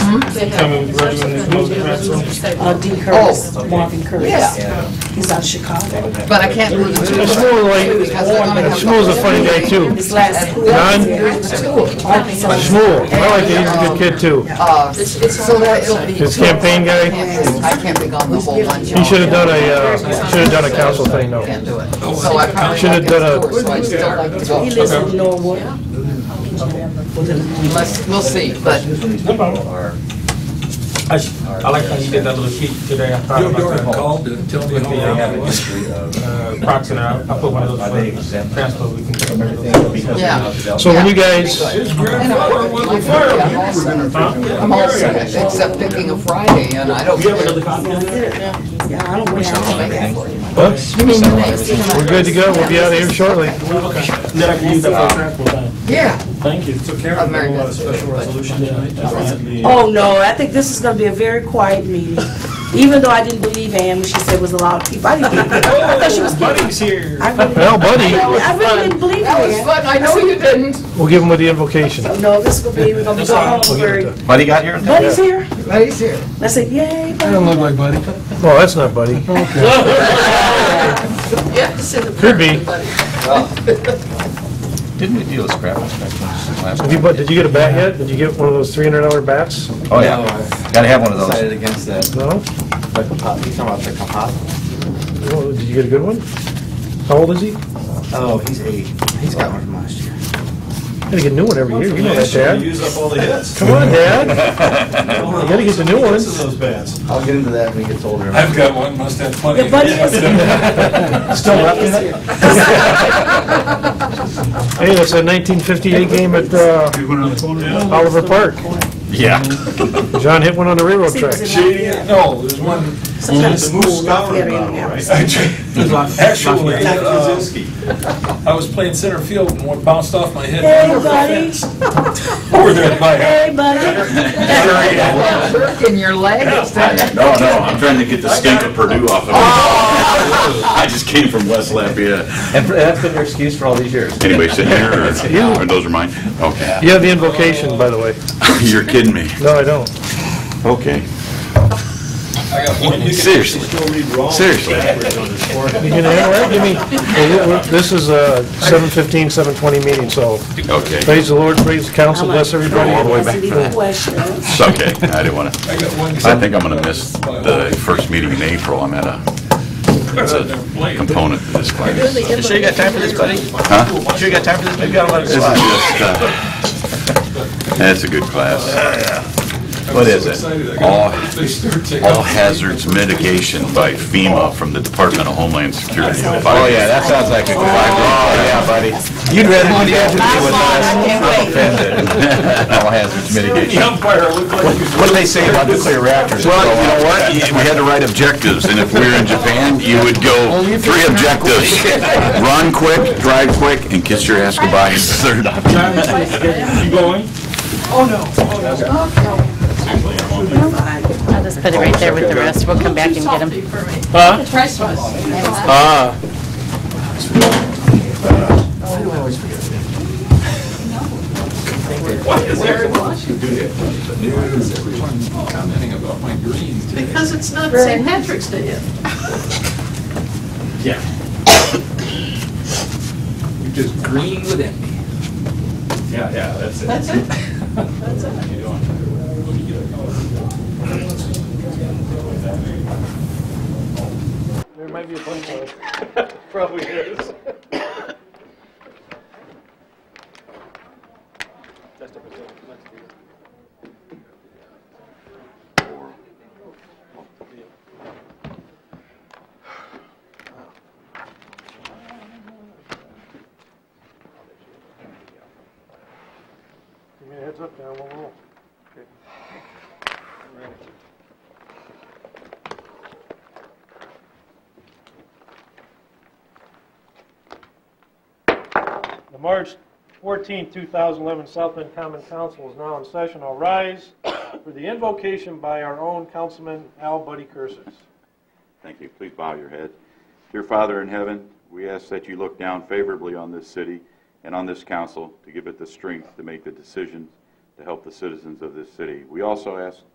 Coming, graduating, most graduates. Uh, D. Curtis, Marvin Curtis. He's out of Chicago. But I can't really do It's it. more like, Shmuel's a funny guy too. His last. Don? Shmuel, I like that, he's a good kid too. Uh, So that it'll be. His campaign guy, I can't be gone the whole lunch. he should have done a, uh, should have done a council thing though. Can't do it. So I probably. Should have done a- won't get to it, So I'd still like to go. He lives in Norwood. Let's- We'll see, but No problem. I sh- I like how you did that little sheet today. I Uh, thought Your about daughter that. called to tell me With how the, long uh, it was. uh, Prox and I, I put one of those for transfer, we can. get rid of Yeah. So when you guys, His grandfather was a I'm fireman. also- those. I'm all set, except picking a Friday, and I don't. Do you have another copy of that? Yeah, I don't wish I was back. we're good to go, we'll be out of here shortly. Okay. Then I can use that for transfer. Yeah. Thank you. So Karen, I'm very we want a busy, special but- resolution tonight. Oh, no, I think this is gonna be a very quiet meeting. Even though I didn't believe Ann when she said it was a lot of people. I didn't believe her. I thought she was kidding. Buddy's here. I really- Well, buddy, I really didn't believe That was her. fun, I know you didn't. we'll give him with the invocation. No, this will be, we're gonna be going home very. Buddy got here? Buddy's here? That is here. I said, yay, buddy. look like Buddy. Oh, that's not Buddy. Yes. in the Could be. park, but- Didn't we deal with scrap inspection last Have you, bu- did you get a bat yet? Did you get one of those three hundred dollar bats? Oh, yeah. Gotta have one of Decided those. against that, No? but you talking about the composite? Oh, Did you get a good one? How old is he? Oh, he's eight. He's got one from last year. Gotta get a new one every year, you know that, Should we Dad. Use up all the hits. Come on, Dad. You gotta get the new ones. Those bats. I'll get into that when he gets older. I've got one, must have plenty. Your buddy is Still laughing? Hey, that's a nineteen fifty-eight game at uh, Oliver Park. Yeah. John hit one on the railroad See, it was tracks. in- Shady, no, there's one, Sometimes the Moose school, Scholar they're in Bottle, there. right? Actually, uh, I was playing center field and one bounced off my head. Hey, over the buddy. fence. Over there by. Hey, buddy. Jerk in your leg. No, no, I'm trying to get the stink of Purdue off of me. Oh. I just came from West Lafayette. And that's been your excuse for all these years. Anyway, sit here, or- or those are mine? Okay. You have the invocation, by the way. You're kidding me. No, I don't. Okay. I got one. You can Seriously. Still read raw. Seriously. You can handle it? Give me, well, we're- this is a seven fifteen, seven twenty meeting, so Okay. praise the Lord, praise the council, bless everybody. All the way back. That's the question. It's okay. I didn't want to, I got one. I think I'm going to miss the first meeting in April. I'm at a, it's a component of this class. This is You sure you got time for this, buddy? Huh? Sure you got time for this? Maybe I'll let it just, slide. uh, that's a good class. What is it? All, all hazards mitigation by FEMA from the Department of Homeland Security. Oh, yeah, that sounds like a good idea. Oh, yeah, buddy. You'd rather do that than with us. All hazards mitigation. The umpire looked like he was. What do they say about nuclear reactors? Well, you know what? You- We had to write objectives, and if we were in Japan, you would go three objectives. Run quick, drive quick, and kiss your ass goodbye. is the Third option. You going? I'll just put it right there with the rest. We'll come back and get them. Ah. News, everyone commenting about my greens. Because it's not St. Patrick's Day yet. You're just green with envy. Yeah, yeah, that's it. That's it. There might be a punchline. Probably is. Give me a heads up now, we'll roll. The March 14, 2011 South Bend Common Council is now in session. I'll rise for the invocation by our own councilman, Al Buddy Cursus. Thank you. Please bow your head. Dear Father in heaven, we ask that you look down favorably on this city and on this council to give it the strength to make the decisions to help the citizens of this city. We also ask